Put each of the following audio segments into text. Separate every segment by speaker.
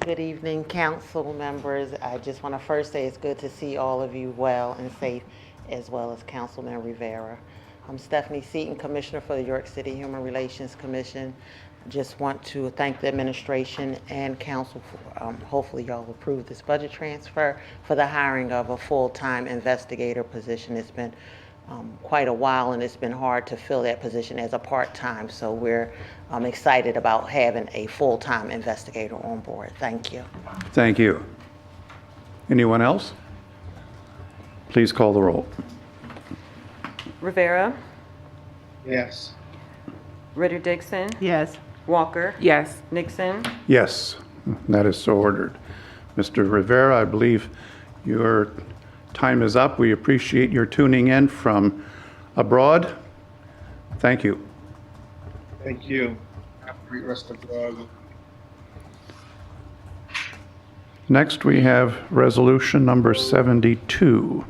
Speaker 1: Good evening, council members. I just want to first say it's good to see all of you well and safe, as well as Councilman Rivera. I'm Stephanie Seaton, Commissioner for the York City Human Relations Commission. Just want to thank the administration and council. for- um, Hopefully, y'all approve this budget transfer for the hiring of a full-time investigator position. It's been um, quite a while, and it's been hard to fill that position as a part-time. So we're um, excited about having a full-time investigator on board. Thank you.
Speaker 2: Thank you. Anyone else? Please call the roll.
Speaker 3: Rivera,
Speaker 4: Yes.
Speaker 3: Ritter Dixon,
Speaker 5: Yes.
Speaker 3: Walker,
Speaker 5: Yes.
Speaker 3: Nixon,
Speaker 2: Yes, that is so ordered. Mr. Rivera, I believe your time is up. We appreciate your tuning in from abroad. Thank you.
Speaker 4: Thank you. Have a great rest of the
Speaker 2: Next, we have resolution number 72.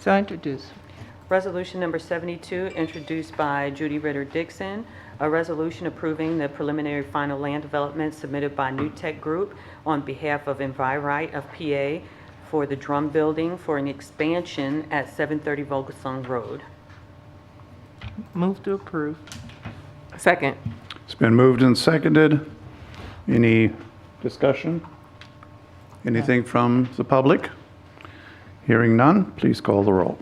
Speaker 5: So introduced.
Speaker 3: Resolution number 72, introduced by Judy Ritter Dixon, a resolution approving the preliminary final land development submitted by New Tech Group on behalf of Envirite of PA for the Drum Building for an expansion at 730 Volgasong Road.
Speaker 5: Move to approve.
Speaker 6: Second.
Speaker 2: It's been moved and seconded. Any discussion? Anything from the public? Hearing none, please call the roll.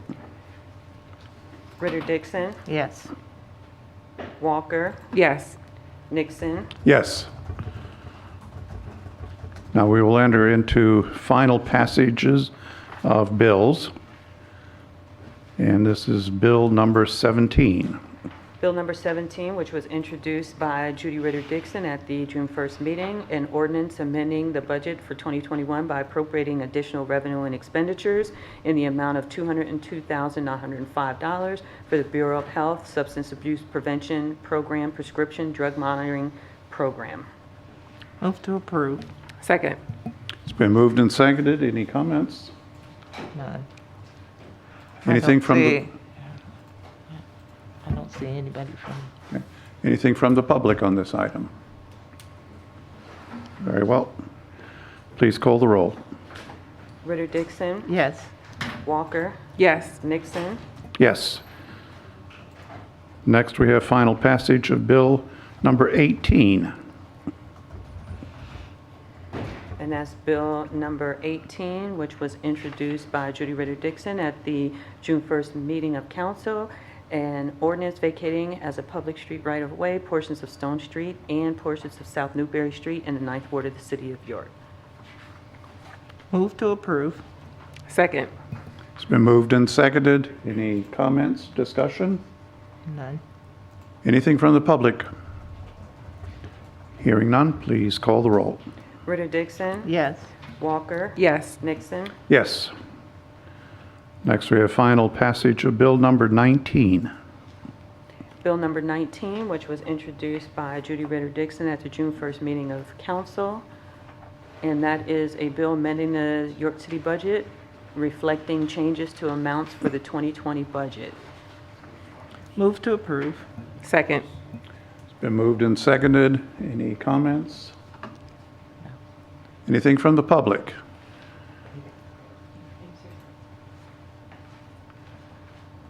Speaker 3: Ritter Dixon,
Speaker 5: Yes.
Speaker 3: Walker,
Speaker 6: Yes.
Speaker 3: Nixon,
Speaker 2: Yes. Now we will enter into final passages of bills. And this is Bill number 17.
Speaker 3: Bill number 17, which was introduced by Judy Ritter Dixon at the June 1st meeting, an ordinance amending the budget for 2021 by appropriating additional revenue and expenditures in the amount of $202,905 for the Bureau of Health Substance Abuse Prevention Program Prescription Drug Monitoring Program.
Speaker 5: Move to approve.
Speaker 6: Second.
Speaker 2: It's been moved and seconded. Any comments?
Speaker 5: None.
Speaker 2: Anything from, the
Speaker 5: I don't see anybody from.
Speaker 2: anything from the public on this item? Very well. Please call the roll.
Speaker 3: Ritter Dixon,
Speaker 5: Yes.
Speaker 3: Walker,
Speaker 6: Yes.
Speaker 3: Nixon,
Speaker 2: Yes. Next, we have final passage of Bill number 18.
Speaker 3: And that's Bill number 18, which was introduced by Judy Ritter Dixon at the June 1st meeting of council, an ordinance vacating as a public street right-of-way portions of Stone Street and portions of South Newberry Street in the Ninth Ward of the City of York.
Speaker 5: Move to approve.
Speaker 6: Second.
Speaker 2: It's been moved and seconded. Any comments, discussion?
Speaker 5: None.
Speaker 2: Anything from the public? Hearing none, please call the roll.
Speaker 3: Ritter Dixon?
Speaker 5: Yes.
Speaker 3: Walker?
Speaker 6: Yes.
Speaker 3: Nixon?
Speaker 2: Yes. Next, we have final passage of Bill number 19.
Speaker 3: Bill number 19, which was introduced by Judy Ritter Dixon at the June 1st meeting of council. And that is a bill amending the York City budget, reflecting changes to amounts for the 2020 budget.
Speaker 5: Move to approve.
Speaker 6: Second.
Speaker 2: It's been moved and seconded. Any comments? Anything from the public?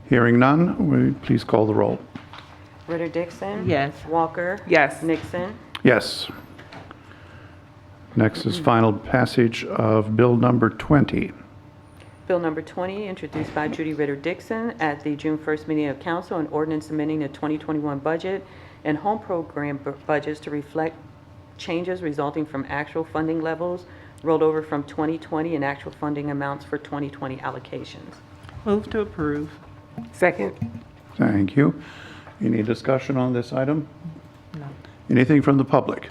Speaker 2: Hearing none, will you please call the roll.
Speaker 3: Ritter Dixon?
Speaker 5: Yes.
Speaker 3: Walker?
Speaker 6: Yes.
Speaker 3: Nixon?
Speaker 2: Yes. Next is final passage of Bill number 20.
Speaker 3: Bill number 20, introduced by Judy Ritter Dixon at the June 1st meeting of council, an ordinance amending the 2021 budget and home program bu- budgets to reflect changes resulting from actual funding levels rolled over from 2020 and actual funding amounts for 2020 allocations.
Speaker 5: Move to approve.
Speaker 6: Second.
Speaker 2: Thank you. Any discussion on this item? Anything from the public?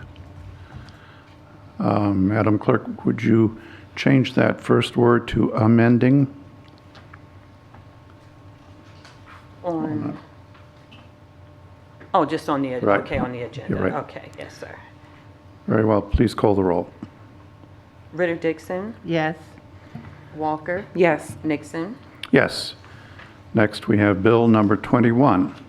Speaker 2: Um, Madam Clerk, would you change that first word to amending?
Speaker 3: On, oh, just on the,
Speaker 2: Right.
Speaker 3: okay, on the agenda.
Speaker 2: You're right.
Speaker 3: Okay, yes, sir.
Speaker 2: Very well, please call the roll.
Speaker 3: Ritter Dixon,
Speaker 5: Yes.
Speaker 3: Walker,
Speaker 6: Yes.
Speaker 3: Nixon.
Speaker 2: Yes. Next, we have Bill number 21.